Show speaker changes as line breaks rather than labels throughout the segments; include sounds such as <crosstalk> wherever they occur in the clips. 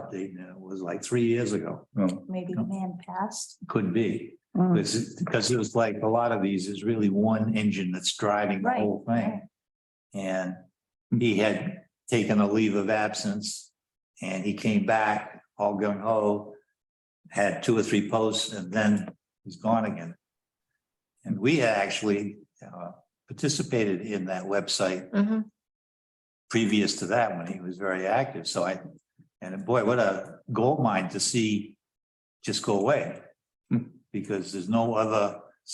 update now was like three years ago,
Oh.
maybe the man passed.
could be.
Hmm.
Mm.
Because, because it was like a lot of these is really one engine that's driving the
Right,
whole thing. And he had taken a leave of absence and he came back all gung ho. Had two or three posts and then he's gone again. And we actually uh, participated in that website
Mhm.
previous to that when he was very active. So I, and boy, what a gold mine to see just go away. Hmm. Because there's no other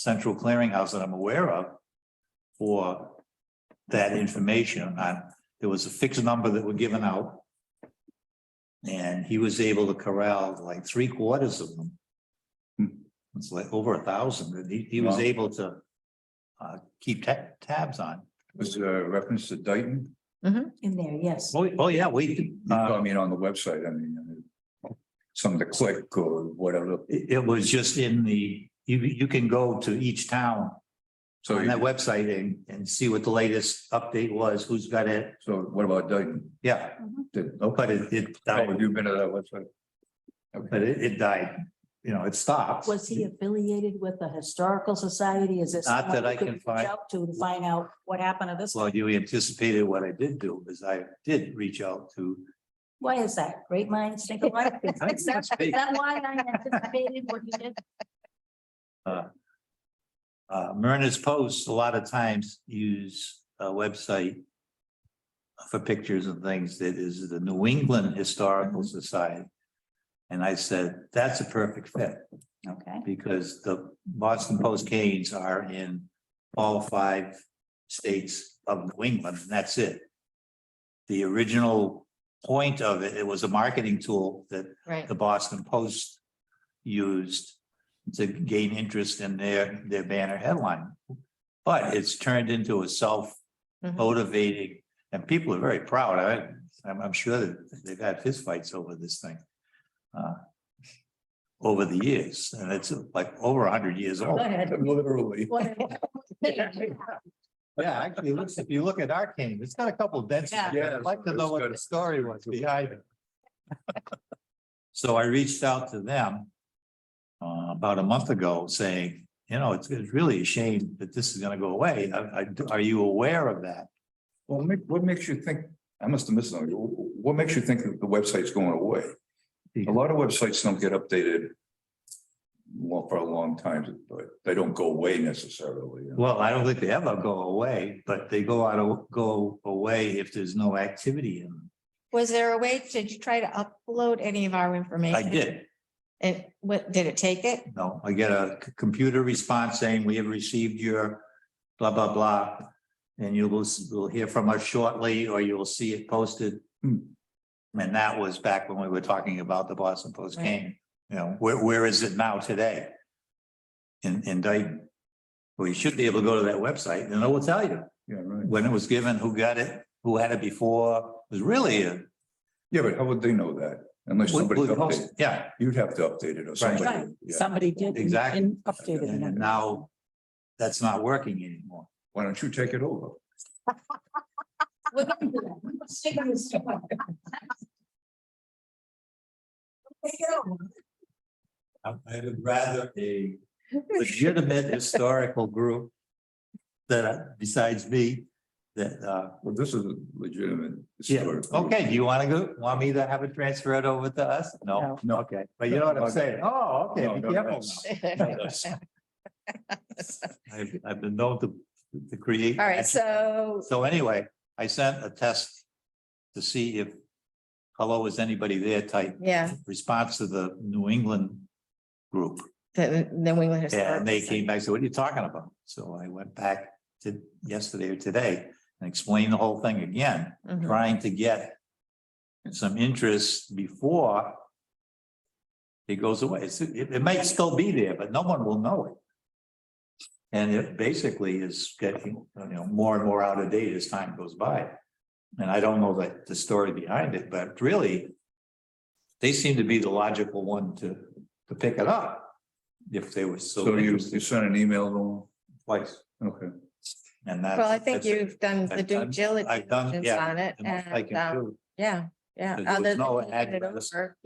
central clearinghouse that I'm aware of for that information. I, there was a fixed number that were given out. And he was able to corral like three quarters of them. Hmm. It's like over a thousand and he, he was
Wow.
able to uh, keep ta- tabs on.
Was a reference to Dayton?
In there, yes.
Oh, oh, yeah, we, uh,
I mean, on the website, I mean. uh, Some of the click or whatever.
it, it was just in the, you, you can go to each town
So,
on that
you-
website and, and see what the latest update was, who's got it.
so what about Dayton?
Yeah,
Mm-hmm.
Did-
but it, it,
Oh,
died.
Have you been to that website?
but it, it died, you know, it stopped.
Was he affiliated with the historical society? Is it?
Not that
someone
I
you could
can
reach
find.
out To to find out what happened to this.
Well, you anticipated what I did do, is I did reach out
<laughs>
to,
Why is that? Great minds think
<laughs>
alike.
think
Is that
must be.
<laughs> is that why I anticipated what you did?
uh, Myrna's posts a lot of times use a website for pictures and things that is the New England Historical Society. And I said, that's a perfect fit.
Okay.
because the Boston Post Canes are in all five states of New England, and that's it. The original point of it, it was a marketing tool that
Right.
the Boston Post used to gain interest in their, their banner headline. But it's turned into a
Mhm.
self-motivating, and people are very proud. I, I'm, I'm sure that they've had fistfights over this thing. uh, Over the years, and it's like over a hundred years old.
<laughs>
Literally.
Whatever.
<laughs> Yeah, actually, it looks, if you look at our cane, it's got a couple of dents. in it.
Yeah.
I'd like to
Yeah,
know
it's
what
got-
the story was behind it. <laughs> So I reached out to them uh, about a month ago saying, you know, it's, it's really a shame that this is gonna go away. I- I- are you aware of that?
Well, make- what makes you think, I must have missed something. What makes you think that the website's going away? A lot of websites don't get updated. Well, for a long time, but they don't go away necessarily.
Well, I don't think they ever go away, but they go out, of- go away if there's no activity in them.
Was there a way, did you try to upload any of our information?
I did.
And what, did it take it?
No, I get a c- computer response saying we have received your blah, blah, blah. And you will, s- will hear from us shortly, or you'll see it posted. Hmm. And that was back when we were talking about the Boston Post
Right.
game, you know, where, where is it now today? In, in Dayton. Well, you should be able to go to that website and it will tell you
Yeah, right.
when it was given, who got it, who had it before. It was really a.
Yeah, but how would they know that? Unless somebody updated,
Yeah,
you'd have to update it or
Right.
somebody. yeah.
Somebody did.
Exactly.
And
and and now that's not working anymore.
Why don't you take it over?
We're gonna do that. We're gonna stick on this one. Take it over.
I I would rather
<laughs>
a legitimate historical group that besides me, that, uh,
Well, this is a legitimate.
yeah,
story.
okay, do you want to go, want me to have it transferred over to us? No,
No.
okay, but you know what I'm saying? Oh, okay.
No,
be
no,
careful
that's-
now. I've, I've been known to, to create.
All right, so,
So anyway, I sent a test to see if, hello, is anybody there type
yeah,
response to the New England group.
the New England
Yeah,
Historical.
And they
Society.
came back, and said, what are you talking about? So I went back to yesterday or today and explained the whole thing again,
Mhm.
trying to get some interest before it goes away. It's- It, it might still be there, but no one will know it. And it basically is getting, you know, more and more out of date as time goes by. And I don't know that the story behind it, but really they seem to be the logical one to, to pick it up if they were so
So you,
interested
you sent an email to
twice.
them? Okay.
And that's.
Well, I think
that's it.
you've done the
I've
due
done- I've done-
diligence
yeah,
on it
The most I
and,
can
um,
do.
yeah,
Yeah.
There was
other than
no
moving it
address.
over.